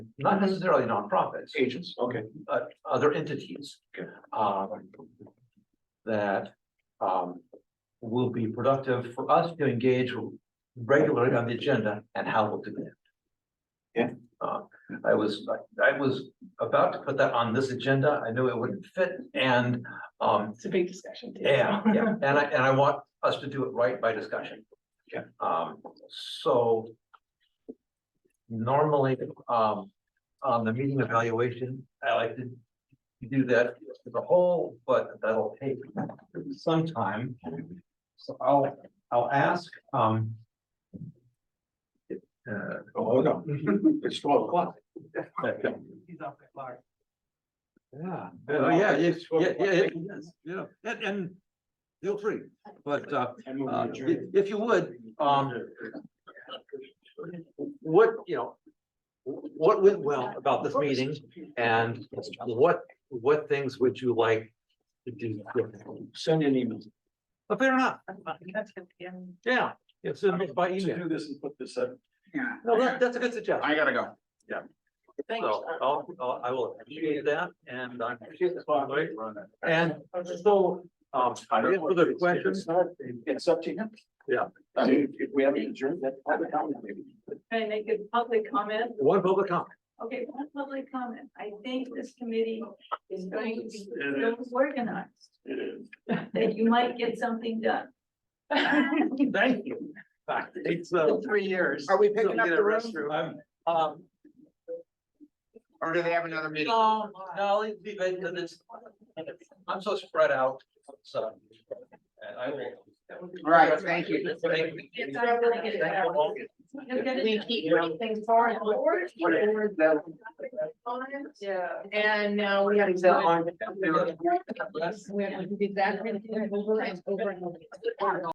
not necessarily nonprofits, Agents, okay, but other entities. Okay. um, That um will be productive for us to engage regularly on the agenda and how we'll do that. Yeah. Uh, I was, I was about to put that on this agenda. I knew it wouldn't fit and um It's a big discussion. too. yeah, yeah, and I, and I want us to do it right by discussion. Yeah. Um, so. Normally, um, on the meeting evaluation, I like to do that as a whole, but that'll take some time. So I'll, I'll ask, um. Uh, oh, no, it's twelve o'clock. He's off the clock. Yeah. Oh, Oh, yeah, yeah, it's yeah, 12 yeah, o'clock. yeah, yes, yeah, and, and feel free, but, uh, I move uh, to if, adjourn. if you would, um, what, you know, what went well about this meeting and what, what things would you like to do? differently? Send an email. But fair enough, That's good, yeah. yeah, it's in by email. Do this and put this up. Yeah. No, that, that's a good suggestion. I gotta go. Thanks. So I'll, I'll, I will appreciate that and I appreciate the spotlight. And And so, um, any further questions? It's up to him. Yeah. I mean, if we haven't adjourned, that, have a comment maybe. Can I make a public comment? One public comment. Okay, one public comment. I think this committee is going to be so organized It is. that you might get something done. Thank you. It's, uh, Three years. Are we picking up the room? I'm, um, Or do they have another meeting? no, no, it'd be better than this. I'm so spread out, so. And I will. All right, thank you. Thank It's not gonna get it Thank you all. We keep doing things far and forward. Yeah. And now we have to on. We have to do that over and over and over.